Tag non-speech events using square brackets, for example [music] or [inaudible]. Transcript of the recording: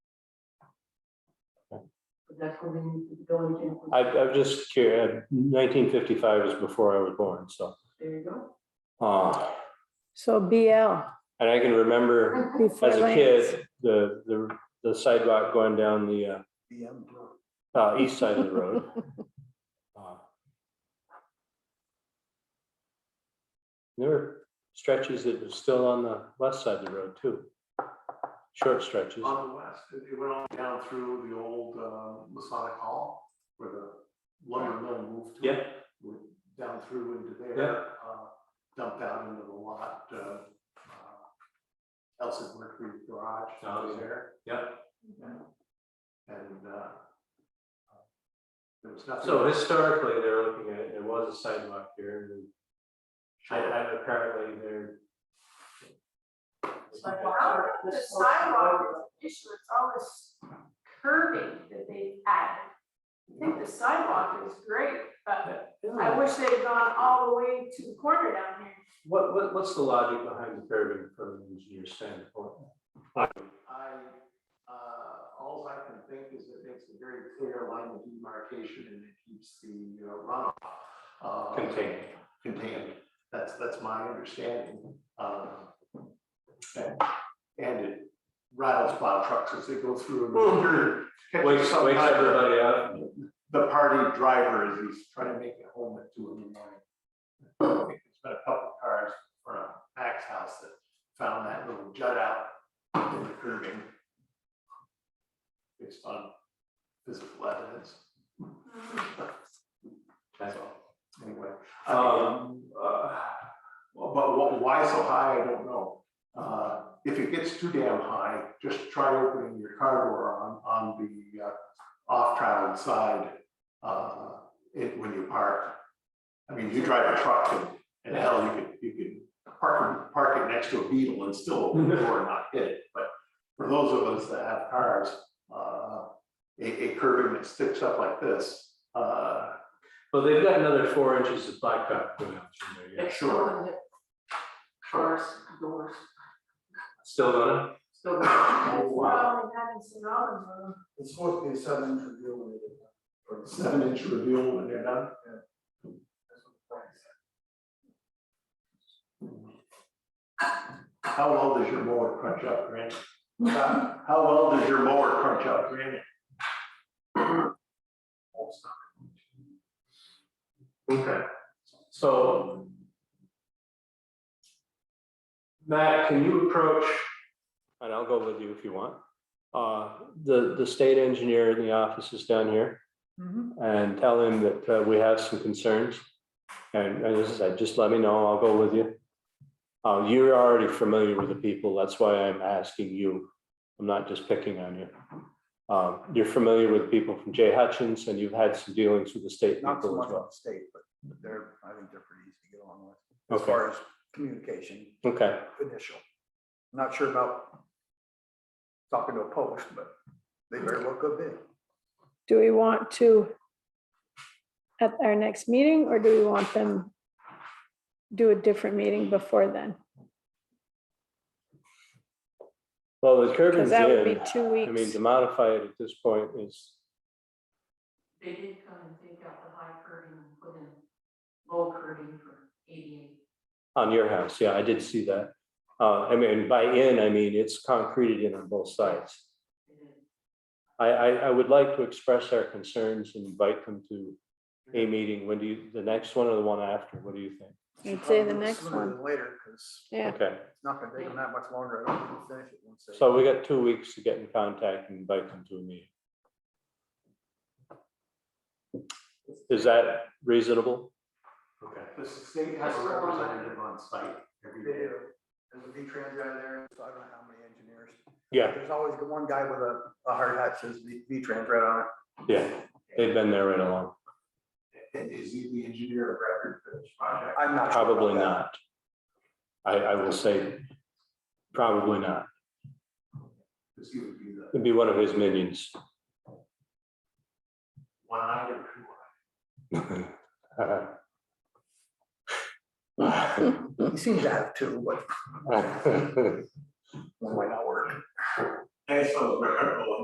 but that's when the village. I, implemented. I'm just curious, nineteen fifty-five was before I was born, so. There you go. Uh, So BL. and I can remember before as a Lance. kid, the, the, the sidewalk going down the, uh, uh, east side of the road. Uh, There were stretches that were still on the west side of the road too. Short stretches. On the west, it it went on down through the old uh, Masonic Hall where the lumber mill moved to. Yeah. Went Down through into Yeah. there, uh, dumped out into the lot. uh, uh, Elsa's Mercury Garage Oh, was yeah. there. Yeah. And uh, there was nothing. So historically, they're looking at, it, there was a sidewalk here, and I, I apparently there. It's like, wow, the sidewalk is an issue, it's all this curving that they added. I think the sidewalk is great, but I Hmm. wish they'd gone all the way to the corner down here. What, what, what's the logic behind the curving from an engineer standpoint? I, uh, all I can think is it makes a very clear line of demarcation and it keeps the uh, runoff. uh, Contained. Contained, that's, that's my understanding. Um, And and it rattles plow trucks as they go through. and dirt. Wakes, wakes Sometimes everybody up. The party driver is, he's trying to make it home at two in the morning. It's been a couple cars from Max House that found that little jut out in the curving. Based on physical evidence, That's so, anyway. I mean, Um, uh, Well, But wh- why so high, I don't know. Uh, If it gets too damn high, just try opening your car door on, on the uh, off-traveled side uh, it- when you park. I mean, you drive a truck and, and hell, you could, you could park, it- park it next to a beetle and still open the door and not hit it. But for those of us that have cars, uh, a, a curbing that sticks up like this, uh, Well, they've got another four inches of blacktop going out through there, yeah. sure. Cars, doors, Still gonna? still. That's Wow. what we had in Sonoma, though. It's supposed to be a seven inch reveal when they do that. Or it's- Seven-inch reveal when they're done. that's what the plan is. How well does your mower crunch up granite? How well does your mower crunch up granite? Okay. So. Matt, can you approach? And I'll go with you if you want. Uh, the, the state engineer in the office is down here. Mhm. Mm-hmm. and tell him that uh, we have some concerns. And and as I said, just let me know, I'll go with you. Uh, You're already familiar with the people, that's why I'm asking you. I'm not just picking on you. Um, You're familiar with people from Jay Hutchins and you've had some dealings with the state Not so people much as on well. the state, but they're, I think they're pretty easy to get along with. As Okay. far as communication, Okay, initial. Not sure about talking to a post, but they very well could be. Do we want to at our next meeting or do we want them do a different meeting before then? well, the Because curbing's that would be in. two I mean, weeks. to modify it at this point is, They did come and take out the high curving and put in low curving for ADA. on your house, yeah, I did see that. Uh, I mean, by in, I mean, it's concreted in on both sides. They did. I, I, I would like to express our concerns and invite them to a Mm-hmm. meeting. When do you, the next one or the one after? What do you think? I'd say the next Sooner one. than Later, because Yeah, Okay, it's not gonna take them that much longer. I don't think they'll finish it once they. so we got two weeks to get in contact and invite them to a meeting. Is that reasonable? Okay. The state has a representative on site every They day. do. There's a V-Trans guy there, so I don't know how many engineers. Yeah, There's always the one guy with a, a hard hat says V- V-Trans right on it. yeah, they've been there right along. And is he the engineer of record for this project? I'm not. sure about Probably that. not. I, I will say, probably not. Because he would be the It'd be one of his minions. [laughs] one I or He seems to have two, but one might not work. two. That's so